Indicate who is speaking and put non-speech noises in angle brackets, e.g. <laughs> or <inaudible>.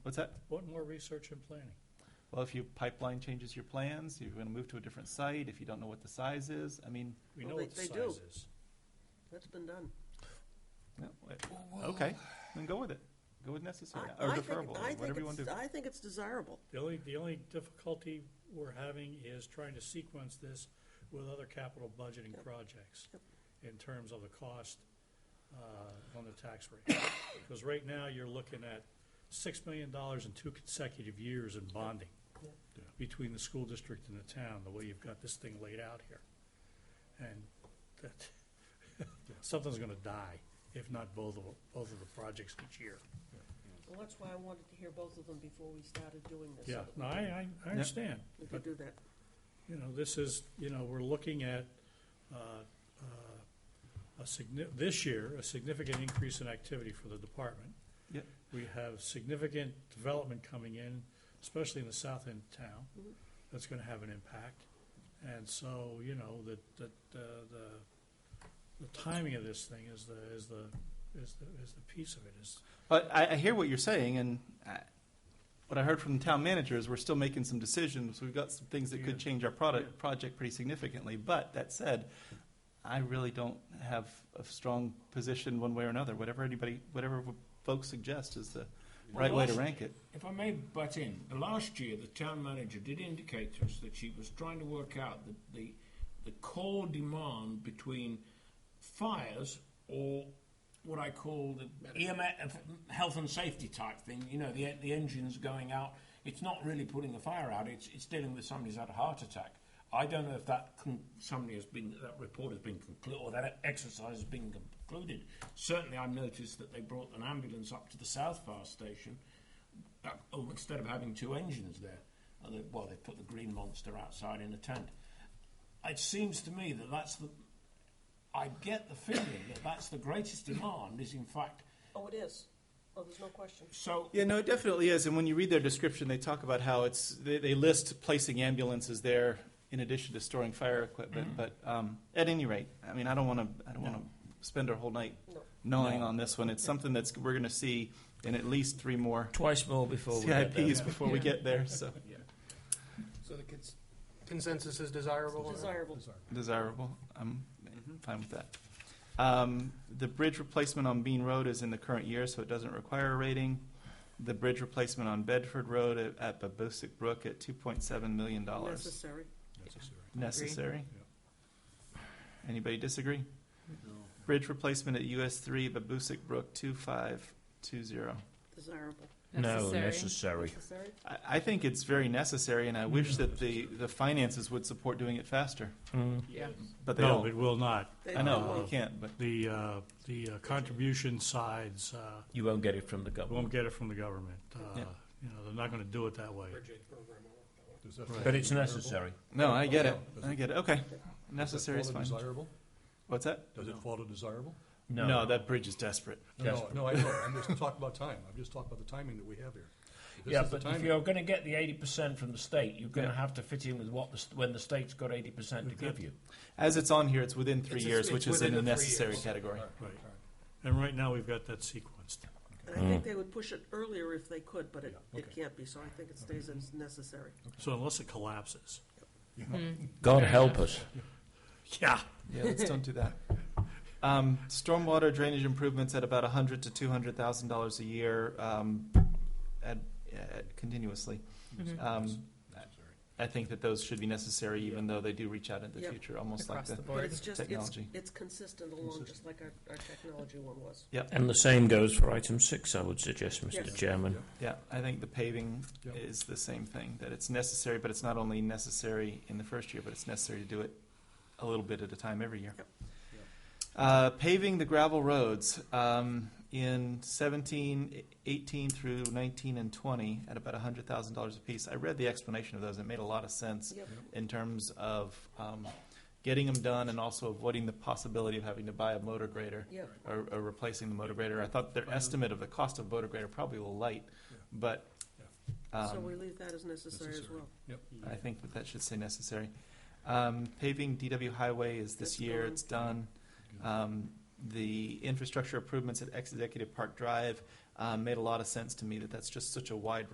Speaker 1: What's that?
Speaker 2: What more research and planning?
Speaker 1: Well, if your pipeline changes your plans, you're gonna move to a different site, if you don't know what the size is, I mean,
Speaker 2: We
Speaker 3: Well,
Speaker 2: know
Speaker 3: they-
Speaker 2: what the
Speaker 3: they
Speaker 2: size
Speaker 3: do.
Speaker 2: is.
Speaker 3: That's been done.
Speaker 1: yeah, wait, okay, then go with it. Go with necessary,
Speaker 3: I-
Speaker 1: or
Speaker 3: I think-
Speaker 1: deferable,
Speaker 3: I think
Speaker 1: whatever you wanna do.
Speaker 3: it's- I think it's desirable.
Speaker 2: The only, the only difficulty we're having is trying to sequence this with other capital budgeting projects
Speaker 3: Yep.
Speaker 2: in terms of the cost uh, on the tax rate. Because right now, you're looking at $6 million in two consecutive years in bonding
Speaker 3: Yep.
Speaker 2: between the school district and the town, the way you've got this thing laid out here. And that, <laughs> something's going to die, if not both of, both of the projects each year.
Speaker 3: Well, that's why I wanted to hear both of them before we started doing this. so
Speaker 2: Yeah,
Speaker 3: that
Speaker 2: no, I, I- I understand.
Speaker 3: We
Speaker 2: but-
Speaker 3: could do that.
Speaker 2: you know, this is, you know, we're looking at, uh, uh, a signi- this year, a significant increase in activity for the department.
Speaker 1: Yep.
Speaker 2: We have significant development coming in, especially in the south end of town,
Speaker 3: Mm-hmm.
Speaker 2: that's gonna have an impact. And so, you know, that, that, uh, the, the timing of this thing is the, is the, is the, is the piece of it, is,
Speaker 1: But I, I hear what you're saying, and I, what I heard from the town manager is we're still making some decisions. We've got some things that could
Speaker 2: Yeah.
Speaker 1: change our product, project pretty significantly. But that said, I really don't have a strong position one way or another. Whatever anybody, whatever folks suggest is the right way to rank it.
Speaker 4: If I may butt in, last year the town manager did indicate to us that she was trying to work out the, the, the core demand between fires or what I call the EMS, health and safety type thing. You know, the, the engine's going out. It's not really putting the fire out, it's, it's dealing with somebody's had a heart attack. I don't know if that con- somebody has been that report has been concluded or that exercise has been concluded. Certainly, I noticed that they brought an ambulance up to the South Fire Station uh, oh, instead of having two engines there, uh, they, well, they put the green monster outside in a tent. It seems to me that that's the. I get the feeling that that's the greatest demand is in fact.
Speaker 3: Oh, it is. Oh, there's no question.
Speaker 4: So
Speaker 1: Yeah, no, it definitely is. And when you read their description, they talk about how it's they, they list placing ambulances there in addition to storing fire equipment.
Speaker 5: Mm-hmm.
Speaker 1: But um, at any rate, I mean, I don't want to. I don't want to spend our whole night
Speaker 3: No.
Speaker 1: gnawing on this one. It's something that's we're going to see in at least three more
Speaker 5: Twice more before we get there.
Speaker 1: CIPs before we get there. So
Speaker 6: So the cons- consensus is desirable? or-
Speaker 3: Desirable.
Speaker 1: desirable. I'm fine with that. Um, the bridge replacement on Bean Road is in the current year, so it doesn't require a rating. The bridge replacement on Bedford Road at, at Babosick Brook at two point seven million dollars.
Speaker 3: Necessary.
Speaker 1: necessary. Anybody disagree? No. Bridge replacement at US three, Babusick Brook, two five two zero.
Speaker 3: Desirable.
Speaker 5: No,
Speaker 7: Necessary.
Speaker 5: necessary.
Speaker 3: Necessary?
Speaker 1: I, I think it's very necessary, and I
Speaker 3: Mm-hmm.
Speaker 1: wish that the, the finances would support doing it faster,
Speaker 3: Yeah.
Speaker 1: but they
Speaker 2: no,
Speaker 1: don't.
Speaker 2: it will not.
Speaker 3: Mm-hmm. They
Speaker 1: I know, you
Speaker 3: don't-
Speaker 1: can't, but
Speaker 2: The, uh, the uh, contribution sides, uh,
Speaker 5: You won't get it from the
Speaker 2: We
Speaker 5: government.
Speaker 2: won't get it from the government. Uh,
Speaker 1: Yeah.
Speaker 2: You know, they're not going to do it that way.
Speaker 5: But it's necessary.
Speaker 1: no, I get it. I get it. Okay, necessary is fine.
Speaker 8: Desirable?
Speaker 1: What's that?
Speaker 8: Does it fall to desirable?
Speaker 5: No.
Speaker 1: No, that bridge is desperate.
Speaker 8: No, no, I know, I'm just talking about time, I'm just talking about the timing that we have here. This
Speaker 4: yeah,
Speaker 8: is the
Speaker 4: but if
Speaker 8: timing.
Speaker 4: you're going to get the eighty percent from the state, you're going to
Speaker 1: Yeah.
Speaker 4: have to fit in with what the, st- when the state's got eighty percent to give you.
Speaker 1: As it's on here, it's within three
Speaker 6: It's-
Speaker 1: years,
Speaker 6: it's
Speaker 1: which is
Speaker 6: within
Speaker 1: in the
Speaker 6: the three
Speaker 1: necessary
Speaker 6: years.
Speaker 1: category.
Speaker 2: Right. And right now, we've got that sequenced.
Speaker 3: And I think they would push it earlier if they could, but it, it
Speaker 8: okay.
Speaker 3: can't be, so I think it stays as necessary.
Speaker 2: So unless it collapses.
Speaker 5: God help us.
Speaker 2: Yeah.
Speaker 1: Yeah, let's don't do that. Um, stormwater drainage improvements at about a hundred to two hundred thousand dollars a year, um, at, at continuously. Um, I think that those should be necessary, even though they do reach out in the
Speaker 3: Yep.
Speaker 1: future, almost like
Speaker 7: Across
Speaker 1: the.
Speaker 7: the
Speaker 3: But
Speaker 7: board.
Speaker 3: it's just, it's,
Speaker 1: Technology.
Speaker 3: it's consistent along, just like our, our technology one was.
Speaker 5: And the same goes for item six, I would suggest, Mr.
Speaker 3: Yes.
Speaker 5: Chairman.
Speaker 1: Yeah, I think the paving
Speaker 8: Yep.
Speaker 1: is the same thing. That it's necessary, but it's not only necessary in the first year, but it's necessary to do it a little bit at a time every year.
Speaker 3: Yep.
Speaker 1: Uh, paving the gravel roads um, in 17, 18 through 19 and 20 at about $100,000 apiece. I read the explanation of those. It made a lot of sense
Speaker 3: Yep.
Speaker 1: in terms of um, getting them done and also avoiding the possibility of having to buy a motor grader
Speaker 3: Yeah.
Speaker 1: or, or replacing the motor grader. I thought their estimate of the cost of motor grader probably a little light, but
Speaker 3: So we
Speaker 1: um,
Speaker 3: leave that as necessary as
Speaker 8: Necessary.
Speaker 3: well.
Speaker 1: I think that that should say necessary. Um, paving DW Highway is this
Speaker 3: That's
Speaker 1: year,
Speaker 3: gone.
Speaker 1: it's done. Um, the infrastructure improvements at Executive Park Drive um, made a lot of sense to me that that's just such a wide